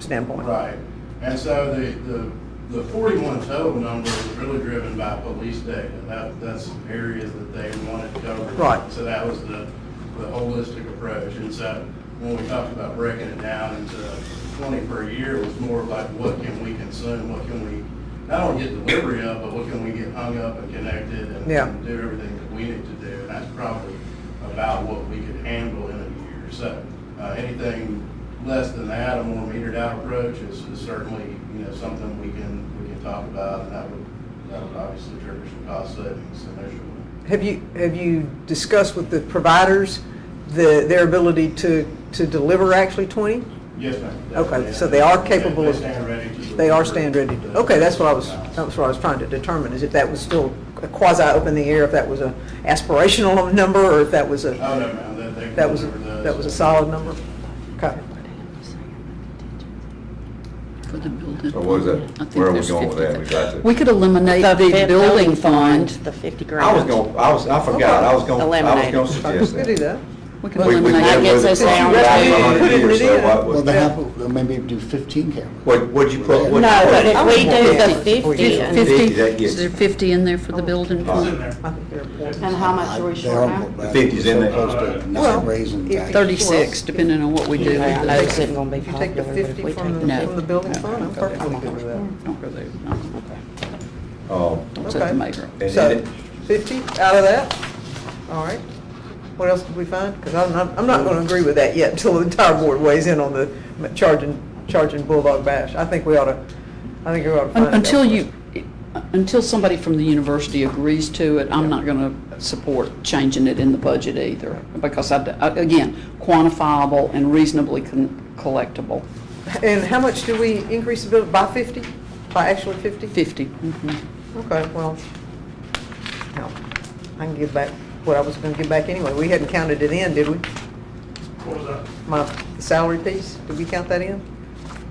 standpoint. Right, and so the, the, the forty-one total number is really driven by police data, that, that's areas that they wanted covered. Right. So that was the, the holistic approach, and so when we talked about breaking it down into twenty per year, it was more like what can we consume, what can we, not only get delivery of, but what can we get hung up and connected and Yeah. and do everything that we need to do, and that's probably about what we could handle in a year. So, uh, anything less than that, a more metered out approach is is certainly, you know, something we can, we can talk about, and that would, that would obviously trigger some cost savings initially. Have you, have you discussed with the providers the, their ability to, to deliver actually 20? Yes, ma'am. Okay, so they are capable of- They stand ready to. They are stand ready. deliver. Okay, that's what I was, that's what I was trying to determine, is if that was still a quasi up in the air, if that was a aspirational number, or if that was a, Oh, no, ma'am, that they. that was, deliver those. that was a solid number? Okay. for the building. So what is I that, think where are we there's going with that? We 50,000. got to. We could eliminate The the fif- building fund. The 50 grand. I was going, I was, I forgot, I was going, I was Eliminate. going to We suggest could do that. that. We could We- we eliminate. did That gets with us it. down We've got to- it for 100 years, so Yeah. what Well, would- they have, uh, maybe do fifteen cameras. What, what'd you put? No, what'd you but put? if we do the 50, and- 50, that Fifty, gets- is there fifty in there for Oh. the building It's fund? in there. I think they're important. and how much I- are we they short are- now? but The 50s in we're there. Close to Well, not raising if- taxes. Thirty-six, depending on what we do. with Yeah, the I know it's not gonna be If you take the popular, but if 50 we from take the, No. from the building fund, I'm perfectly good with that. Don't go there, no, okay. Um, Don't set Okay. the mayor up. And So, then- 50 out of that? All right. What else did we find? Because I'm not, I'm not going to agree with that yet until the entire board weighs in on the charging, charging Bulldog Bash. I think we ought to, I think we ought to find. out Un- Until first. you, until somebody from the university agrees to it, I'm not going to support changing it in the budget either, because I, d- I- again, quantifiable and reasonably con- collectible, And how much do we increase the bill, by 50? By actually 50? 50. Mm-hmm. mhm. Okay, well, no, I can give back what I was going to give back anyway. We hadn't counted it in, did we? What was that? My salary piece, did we count that in?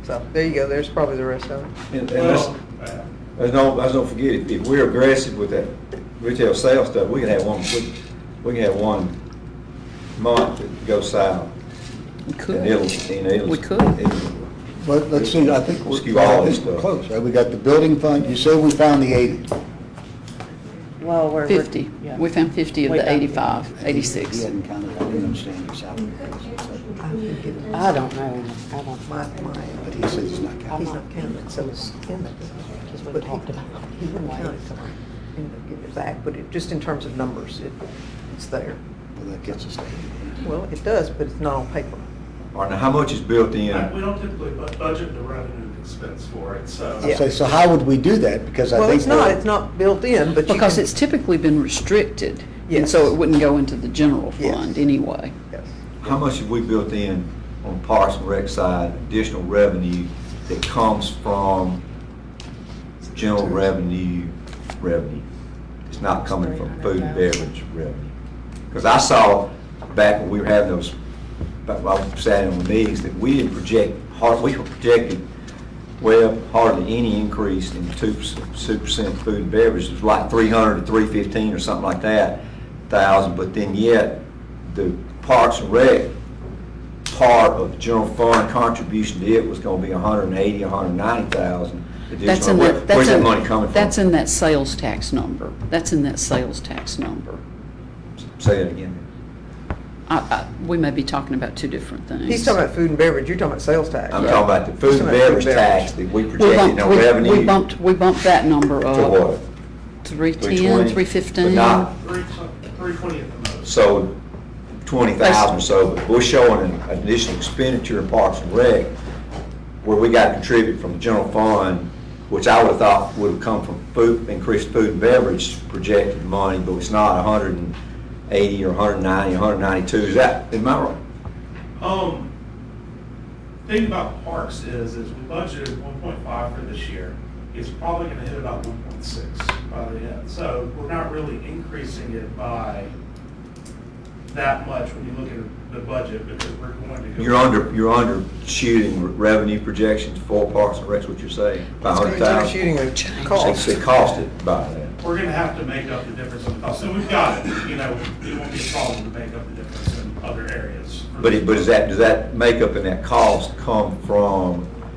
So, there you go, there's probably the rest of it. And, and let's, Well, uh, let's don't, let's don't forget, if- if we're aggressive with that retail sales stuff, we can have one, we, we can have one month that goes south. We And could, it'll, and it'll. We could. it'll- But let's see, I think we're, Skew all I this think we're stuff. close, right? We got the building fund, you say we found the eighty. Well, we're. 50. yeah. We found 50 of We the got- 85, He 86. hadn't counted, I didn't understand your salary. raise, I don't know, I don't My, know, my, But he says he's not counting. He's not counted, so it's in it. because we But he- talked about He wouldn't count it. it, so I ended up giving it back, but it, just in terms of numbers, it, it's there. Well, that gets us to eighty. Well, it does, but it's not on paper. All right, now how much is built in? We don't typically bu- budget the revenue and expense for it, so. Yeah. I say, so how would we do that? Because I think. Well, it's not, we're- it's not built in, but you Because can- it's typically been restricted, and Yes. so it wouldn't go into the general Yes. fund anyway. Yes. How much have we built in on Parks and Rec side, additional revenue that comes from general revenue, revenue? It's not coming from food and beverage revenue. Because I saw back when we were having those, back when I was sat in with these, that we didn't project, hard, we were projecting, well, hardly any increase in two percent food and beverage. It was like three hundred to three fifteen or something like that, thousand, but then yet, the Parks and Rec part of the general fund contribution to it was gonna be a hundred and eighty, a hundred and ninety thousand. That's in that, that's Where's that in- money coming from? That's in that sales tax number. That's in that sales tax number. Say that again. I, I, we may be talking about two different things. He's talking about food and beverage, you're talking about sales tax. I'm talking about the He's food talking and about food beverage tax that we We projected bumped, on we- revenue. we bumped, we bumped that number To up, what? 310, 320, 315. But not, Three twenty at the most. so twenty thousand or so, but we're showing an additional expenditure in Parks and Rec where we got to contribute from the general fund, which I would have thought would have come from food, increased food and beverage projected money, but it's not hundred and eighty or hundred and ninety, hundred and ninety-two, is that, am I wrong? Um, thing about parks is, is we budgeted one point five for this year. It's probably gonna hit about one point six by the end, so we're not really increasing it by that much when you look at the budget, because we're going to go. You're under, you're under shooting revenue projections for Parks and Rec's, what you're saying, by hundred You're thousand. shooting a cost. It costed by that. We're gonna have to make up the difference in cost, and we've got it, you know, it won't be a problem to make up the difference in other areas. But it, but is that, does that makeup and that cost come from